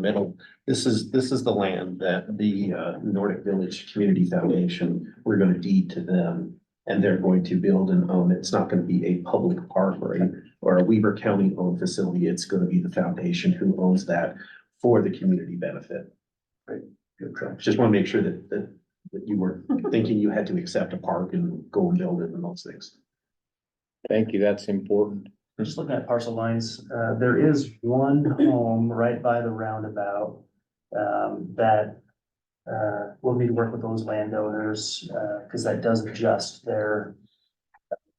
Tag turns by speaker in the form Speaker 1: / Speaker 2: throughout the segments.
Speaker 1: middle, this is, this is the land that the uh, Nordic Village Community Foundation, we're gonna deed to them. And they're going to build and own, it's not gonna be a public park or a, or a Weaver County owned facility, it's gonna be the foundation who owns that for the community benefit. Right. Just wanna make sure that, that, that you weren't thinking you had to accept a park and go and build it and those things.
Speaker 2: Thank you, that's important.
Speaker 3: Just looking at parcel lines, uh, there is one home right by the roundabout, um, that, uh, will need to work with those landowners, uh, cause that does adjust their.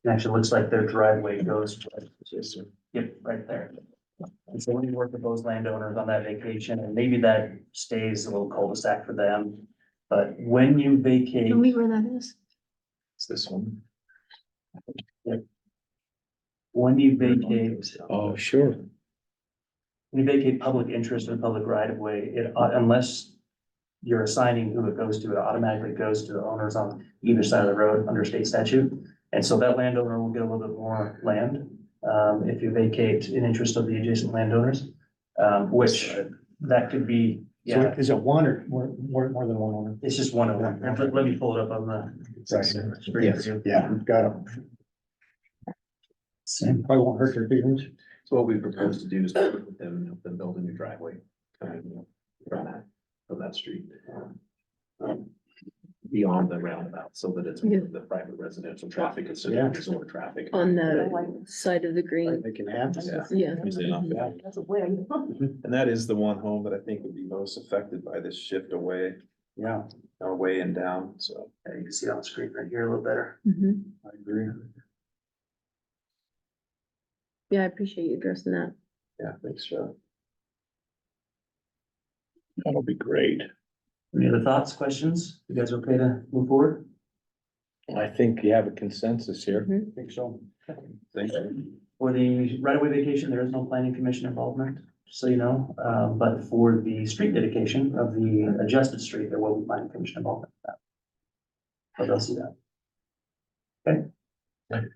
Speaker 3: it Actually, looks like their driveway goes, yep, right there. And so we need to work with those landowners on that vacation, and maybe that stays a little cul-de-sac for them. But when you vacate,
Speaker 4: Tell me where that is.
Speaker 1: It's this one.
Speaker 3: when you vacate
Speaker 2: Oh, sure.
Speaker 3: When you vacate public interest or public right of way, it, au- unless you're assigning who it goes to, it automatically goes to the owners on either side of the road under state statute. And so that landowner will get a little bit more land, um, if you vacate in interest of the adjacent landowners. Um, which that could be,
Speaker 5: So
Speaker 3: yeah,
Speaker 5: is it one or more, more, more than one owner?
Speaker 3: it's just one of them. Let let me pull it up on the.
Speaker 5: Yes, yeah, got it. Probably won't hurt your feelings.
Speaker 1: So what we propose to do is work with them, and help them build a new driveway. kind of, From that, from that street. um, Beyond the roundabout, so that it's
Speaker 4: Yeah.
Speaker 1: the private residential traffic instead
Speaker 5: Yeah.
Speaker 1: of resort traffic.
Speaker 4: On the side of the green,
Speaker 5: They can have. it.
Speaker 1: Yeah.
Speaker 4: yeah.
Speaker 6: That's a win.
Speaker 7: And that is the one home that I think would be most affected by this shift away,
Speaker 5: Yeah,
Speaker 7: away and down, so.
Speaker 3: Yeah, You can see it on the screen right here a little better.
Speaker 4: Mhm.
Speaker 5: I agree.
Speaker 4: Yeah, I appreciate you addressing that.
Speaker 7: Yeah, thanks, Joe.
Speaker 2: That'll be great.
Speaker 3: Any other thoughts, questions? You guys okay to move forward?
Speaker 2: I think you have a consensus here.
Speaker 5: I think so.
Speaker 7: Thank you.
Speaker 3: For the right of way vacation, there is no planning commission involvement, just so you know, um, but for the street dedication of the adjusted street, there will be planning commission involvement. with that. But they'll see that.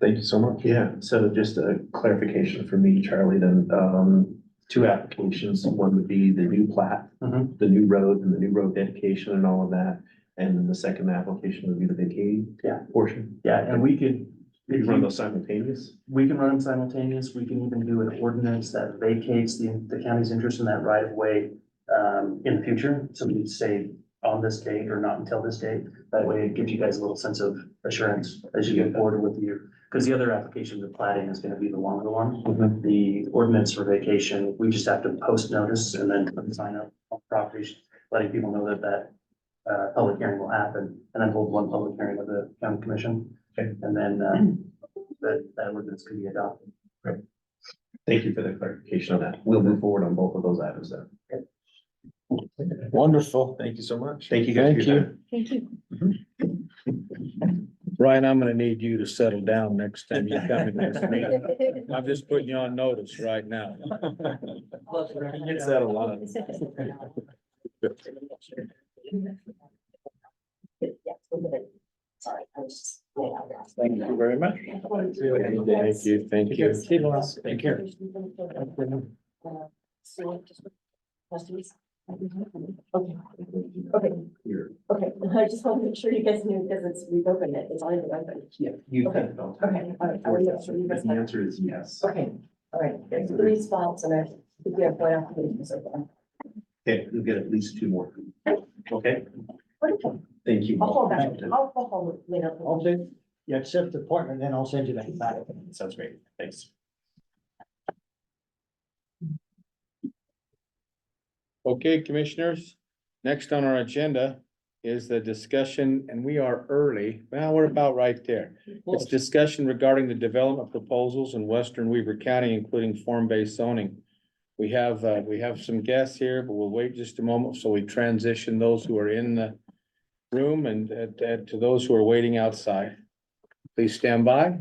Speaker 1: Thank you so much. Yeah, so just a clarification for me, Charlie, then, um, two applications, one would be the new plat.
Speaker 3: Mhm.
Speaker 1: The new road and the new road dedication and all of that, and then the second application would be the vacating.
Speaker 3: Yeah.
Speaker 1: Portion.
Speaker 3: Yeah, and we could,
Speaker 1: If you run those simultaneous.
Speaker 3: we can run them simultaneous, we can even do an ordinance that vacates the, the county's interest in that right of way. Um, in the future, so we say on this date or not until this date, that way it gives you guys a little sense of assurance as you get forward with your. Cause the other application, the plating is gonna be the longer one. the ordinance for vacation, we just have to post notice and then put the sign up on properties, letting people know that that uh, public hearing will happen, and then hold one public hearing with the county commission. And then, uh, that, that ordinance could be adopted.
Speaker 1: Thank you for the clarification on that. We'll move forward on both of those items then.
Speaker 2: Wonderful.
Speaker 7: Thank you so much.
Speaker 1: Thank you guys for
Speaker 2: Thank
Speaker 1: your
Speaker 2: you.
Speaker 1: time.
Speaker 4: Thank you.
Speaker 2: Ryan, I'm gonna need you to settle down next time you come in this meeting. I'm just putting you on notice right now.
Speaker 7: It's that a lot.
Speaker 6: Sorry, I was just.
Speaker 2: Thank you very much. Thank you, thank you.
Speaker 6: Take care. Questions? Okay. Okay, okay, I just want to make sure you guys knew because it's, we've opened it, it's already been open.
Speaker 1: Yeah. You
Speaker 6: Okay,
Speaker 1: can.
Speaker 6: okay, all right, I will make sure you guys
Speaker 1: The
Speaker 6: have-
Speaker 1: answer is yes.
Speaker 6: Okay, all right, there's three spots and I think we have one application so far.
Speaker 1: Okay, we'll get at least two more. Okay,
Speaker 6: Okay,
Speaker 1: thank you.
Speaker 6: I'll call back, I'll I'll call later.
Speaker 5: Okay, you accept the appointment, then I'll send you that back.
Speaker 1: Sounds great. Thanks.
Speaker 2: Okay, commissioners, next on our agenda is the discussion, and we are early. Well, we're about right there. It's discussion regarding the development proposals in western Weaver County, including form-based zoning. We have, uh, we have some guests here, but we'll wait just a moment so we transition those who are in the room and, and and to those who are waiting outside. Please stand by.